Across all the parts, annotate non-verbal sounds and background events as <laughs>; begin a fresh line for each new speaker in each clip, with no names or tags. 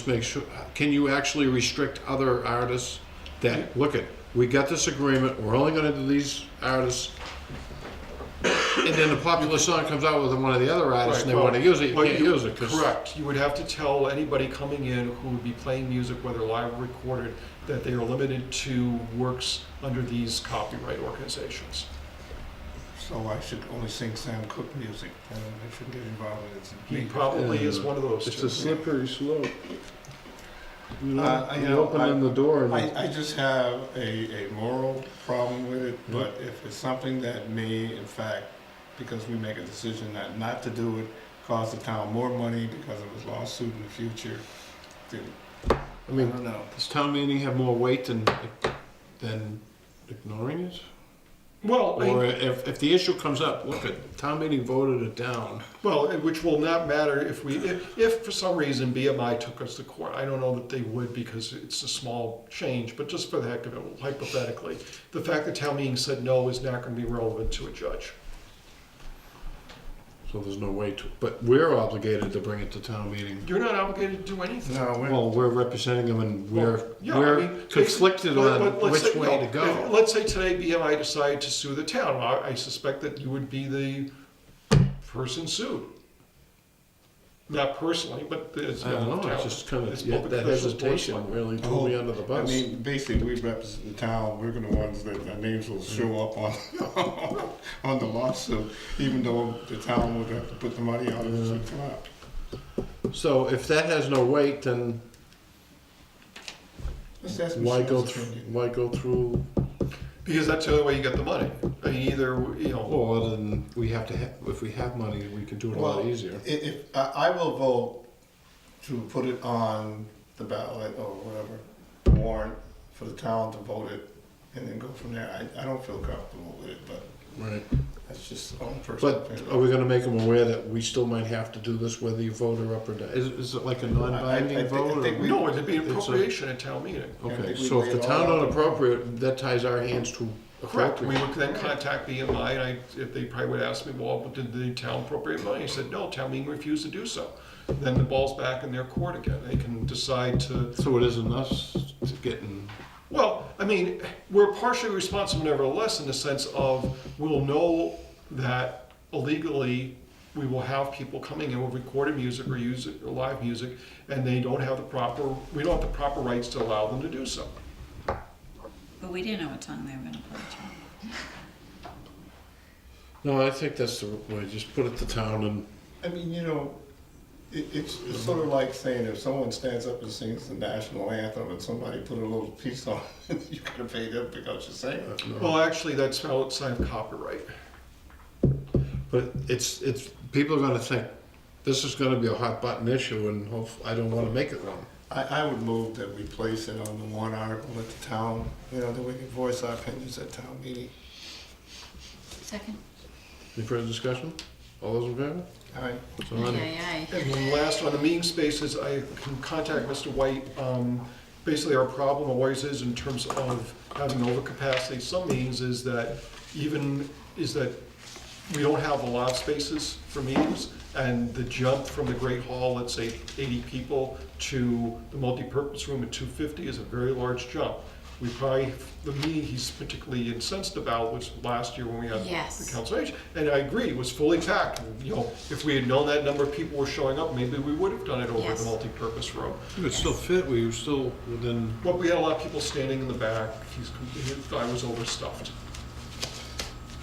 Just make sure, can you actually restrict other artists that, look at, we got this agreement, we're only gonna do these artists. And then the popular song comes out with one of the other artists and they
Right,
wanna
well,
use it, you
well,
can't use it, 'cause-
Correct, you would have to tell anybody coming in who would be playing music, whether live or recorded, that they are limited to works under these copyright organizations.
So I should only sing Sam Cooke music, and I shouldn't get involved with
He
it.
probably is one of those
uh, It's a
two.
slippery slope. You
Uh,
know,
I
you
know,
open
I-
in the door and.
I, I just have a, a moral problem with it,
Hmm.
but if it's something that may, in fact, because we make a decision not, not to do it, cause the town more money because of a lawsuit in the future, then,
I
I
mean,
don't know.
does town meeting have more weight than, than ignoring it?
Well,
Or
I-
if, if the issue comes up, look at, town meeting voted it down.
well, which will not matter if we, if, if for some reason BMI took us to court, I don't know that they would because it's a small change, but just for the heck of it, hypothetically, the fact that town meeting said no is not gonna be relevant to a judge.
So there's no way to, but we're obligated to bring it to town meeting.
You're not obligated to do anything.
No, we're,
Well, we're representing them and
Well,
we're,
yeah, I
we're
mean,
conflicted
but-
on
but let's
which
say-
way to
no, if-
go.
Let's say today BMI decided to sue the town. I, I suspect that you would be the person sued. Not personally, but as.
I don't
the
know,
town.
it's just kind
It's
of, yeah,
public
that
officials, board
hesitation
select-
really threw me under the
Oh, I
bus.
mean, basically, we represent the town, we're the ones that, our names
Hmm.
will show up on, <laughs> on the lawsuit, even though the town would have to put the money out of
Hmm.
it.
So if that has no weight, then
Let's ask
why go,
Michelle's
thr-
opinion.
why go through,
Because that's the only way you get the money. I mean, either, you know,
well, other than we have to, ha- if we have money, we can do it a lot
Well,
easier.
i- If, I, I will vote to put it on the ballot or whatever, warrant for the town to vote it and then go from there. I, I don't feel comfortable with it, but
Right.
that's just own personal
But
opinion.
are we gonna make them aware that we still might have to do this whether you vote or up or down? Is, is it like a
I- I
non-binding
thi- I
vote? or-
think we-
no, it'd be an
It's a-
appropriation at town meeting.
I
Okay,
think we
so if
laid
the
it all
town
out.
don't appropriate, that ties our hands to
Correct. We
appropriate.
would then contact BMI and I, if they probably would ask me, well, did the town appropriate money? I said, no, town meeting refused to do so. Then the ball's back in their court again. They can decide to
So it isn't us to getting,
Well, I mean, we're partially responsible nevertheless in the sense of we'll know that illegally we will have people coming in with recorded music or use or live music and they don't have the proper, we don't have the proper rights to allow them to do so.
But we didn't know what tongue they were gonna put
no, I think that's the way, just put it to town and,
I mean, you know, it, it's, it's sort of like saying if someone stands up and sings the national anthem and somebody put a little piece on, <laughs> it, you gotta pay them because you're saying it.
Well, actually, that's outside of copyright.
but it's, it's, people are gonna think, this is gonna be a hot button issue and hope, I don't wanna make it one.
I, I would move that we place it on the one article at the town, you know, that we can voice our opinions at town meeting.
on. Second?
Any further discussion? All those in favor?
All right.
So
Aye,
on-
aye, aye.
And then last on the meeting spaces, I can contact Mr. White. Um, Basically, our problem always is in terms of having overcapacity, some meetings is that even, is that we don't have a lot of spaces for meetings, and the jump from the Great Hall, let's say eighty people, to the multipurpose room at two fifty is a very large jump. We probably, the meeting he's particularly incensed about was last year when we had
Yes.
the council age, and I agree, it was fully packed. You know, if we had known that number of people were showing up, maybe we would have done it over the
Yes.
multipurpose room.
You could still fit, we were still within,
But we had a lot of people standing in the back, he's, he thought I was overstuffed.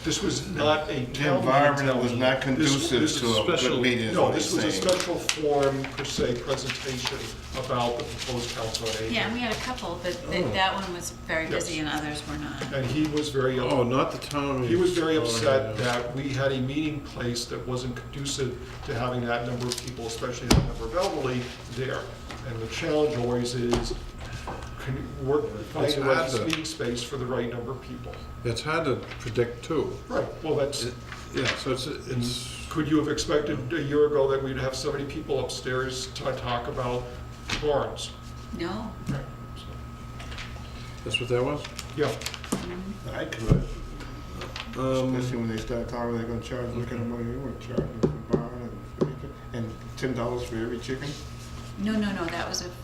This was not a
The
town
environment was
mentality.
not
This-
conducive
this is
to a
special-
good meeting, is
No,
what he's
this was a
saying.
special form per se presentation about the proposed council on
Yeah,
aging.
and we had a couple, but
Oh.
th- that one was very busy and others were not.
And he was very,
oh, not the town.
he was very
Oh,
upset
yeah.
that we had a meeting place that wasn't conducive to having that number of people, especially that number of elderly there. And the challenge always is, can you work, find
It's
the
hard
right
to-
meeting space for the right number of people.
It's hard to predict too.
Right, well, that's,
It- Yeah, so it's, it's,
could you have expected a year ago that we'd have so many people upstairs to talk about Lawrence?
No,
Right,
that's what that was?
so, Yeah.
I could,
Um,
especially when they start talking, they're gonna charge, look at oh, the money, they wanna charge them for barn and, for chicken, and ten dollars for every chicken.
no, no, no, that was a